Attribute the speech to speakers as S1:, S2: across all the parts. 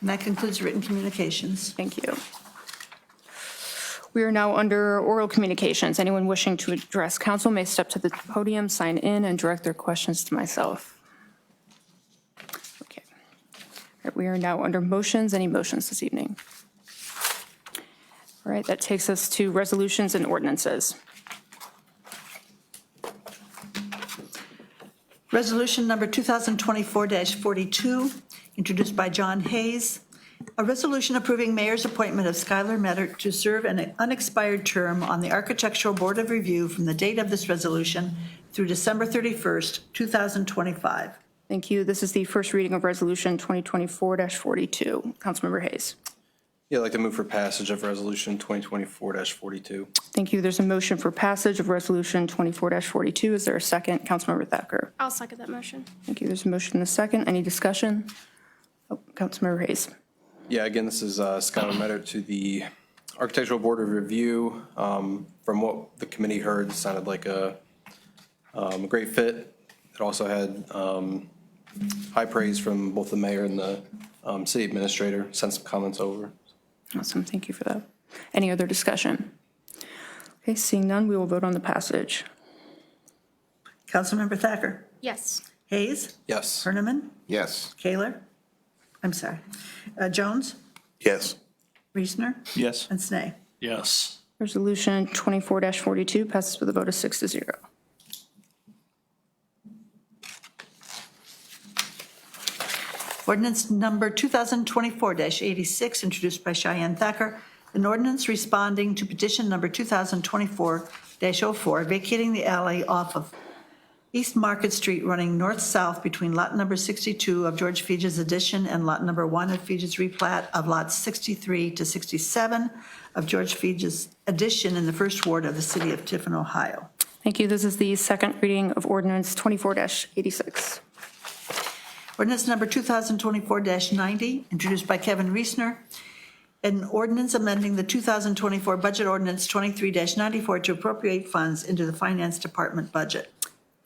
S1: And that concludes written communications.
S2: Thank you. We are now under oral communications. Anyone wishing to address council may step to the podium, sign in, and direct their questions to myself. Okay. All right, We are now under motions. Any motions this evening? All right, that takes us to resolutions and ordinances.
S1: Resolution number 2024-42, introduced by John Hayes. A resolution approving mayor's appointment of Skylar Metter to serve an unexpired term on the Architectural Board of Review from the date of this resolution through December 31st, 2025.
S2: Thank you. This is the first reading of Resolution 2024-42. Councilmember Hayes.
S3: Yeah, I'd like to move for passage of Resolution 2024-42.
S2: Thank you. There's a motion for passage of Resolution 24-42. Is there a second? Councilmember Thacker.
S4: I'll second that motion.
S2: Thank you. There's a motion and a second. Any discussion? Oh, Councilmember Hayes.
S3: Yeah, again, this is uh, Scott Metter to the Architectural Board of Review. Um, From what the committee heard, it sounded like a um, great fit. It also had um, high praise from both the mayor and the um, city administrator, sent some comments over.
S2: Awesome. Thank you for that. Any other discussion? Okay, seeing none, we will vote on the passage.
S1: Councilmember Thacker.
S4: Yes.
S1: Hayes.
S3: Yes.
S1: Herniman.
S5: Yes.
S1: Kaler. I'm sorry. uh, Jones.
S5: Yes.
S1: Reesner.
S6: Yes.
S1: And Snee.
S6: Yes.
S2: Resolution 24-42 passes with a vote of six to zero.
S1: Ordinance number 2024-86, introduced by Cheyenne Thacker, an ordinance responding to petition number 2024-04, vacating the alley off of East Market Street running north-south between lot number 62 of George Feeges addition and lot number 1 of Feeges replat of lots 63 to 67 of George Feeges addition in the first ward of the city of Tiffin, Ohio.
S2: Thank you. This is the second reading of ordinance 24-86.
S1: Ordinance number 2024-90, introduced by Kevin Reesner. An ordinance amending the 2024 budget ordinance 23-94 to appropriate funds into the Finance Department budget.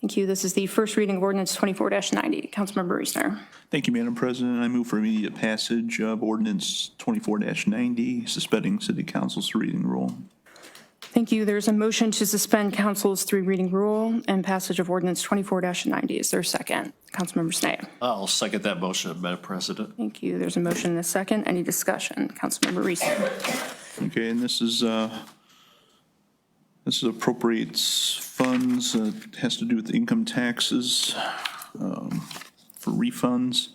S2: Thank you. This is the first reading of ordinance 24-90. Councilmember Reesner.
S6: Thank you, Madam President. I move for immediate passage of ordinance 24-90, suspending city council's reading rule.
S2: Thank you. There's a motion to suspend council's three reading rule and passage of ordinance 24-90. Is there a second? Councilmember Snee.
S7: I'll second that motion, Madam President.
S2: Thank you. There's a motion and a second. Any discussion? Councilmember Reese.
S6: Okay, and this is, uh, this is appropriates funds, uh, has to do with income taxes um, for refunds.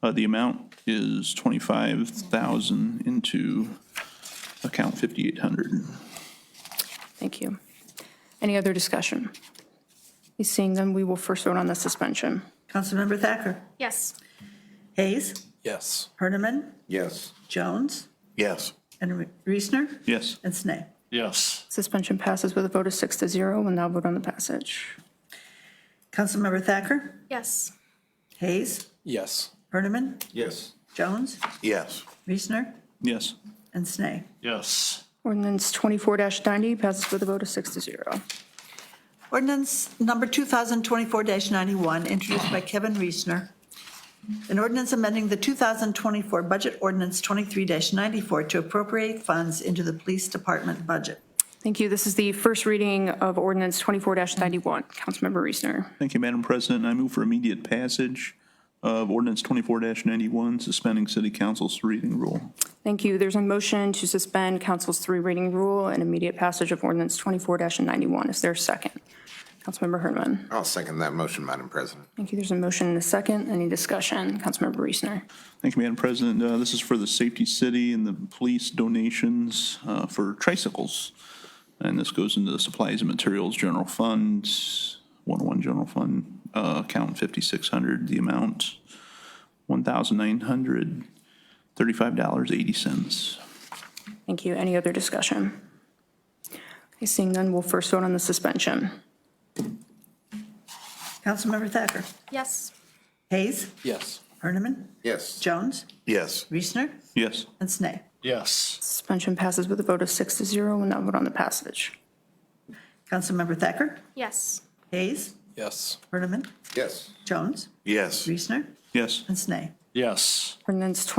S6: Uh, The amount is 25,000 into account 5,800.
S2: Thank you. Any other discussion? Seeing none, we will first vote on the suspension.
S1: Councilmember Thacker.
S4: Yes.
S1: Hayes.
S3: Yes.
S1: Herniman.
S5: Yes.
S1: Jones.
S5: Yes.
S1: And Reesner.
S6: Yes.
S1: And Snee.
S7: Yes.
S2: Suspension passes with a vote of six to zero. We'll now vote on the passage.
S1: Councilmember Thacker.
S4: Yes.
S1: Hayes.
S3: Yes.
S1: Herniman.
S5: Yes.
S1: Jones.
S5: Yes.
S1: Reesner.
S6: Yes.
S1: And Snee.
S7: Yes.
S2: Ordinance 24-90 passes with a vote of six to zero.
S1: Ordinance number 2024-91, introduced by Kevin Reesner. An ordinance amending the 2024 budget ordinance 23-94 to appropriate funds into the police department budget.
S2: Thank you. This is the first reading of ordinance 24-91. Councilmember Reesner.
S6: Thank you, Madam President. I move for immediate passage of ordinance 24-91, suspending city council's reading rule.
S2: Thank you. There's a motion to suspend council's three reading rule and immediate passage of ordinance 24-91. Is there a second? Councilmember Herman.
S5: I'll second that motion, Madam President.
S2: Thank you. There's a motion and a second. Any discussion? Councilmember Reesner.
S6: Thank you, Madam President. Uh, This is for the Safety City and the police donations uh, for tricycles. And this goes into the Supplies and Materials General Fund, 101 General Fund, uh, account 5,600, the amount $1,935.80.
S2: Thank you. Any other discussion? Okay, seeing none, we'll first vote on the suspension.
S1: Councilmember Thacker.
S4: Yes.
S1: Hayes.
S3: Yes.
S1: Herniman.
S5: Yes.
S1: Jones.
S5: Yes.
S1: Reesner.
S6: Yes.
S1: And Snee.
S7: Yes.
S2: Suspension passes with a vote of six to zero. We'll now vote on the passage.
S1: Councilmember Thacker.
S4: Yes.
S1: Hayes.
S3: Yes.
S1: Herniman.
S5: Yes.
S1: Jones.
S5: Yes.
S1: Reesner.
S6: Yes.
S1: And Snee.
S7: Yes.
S2: Ordinance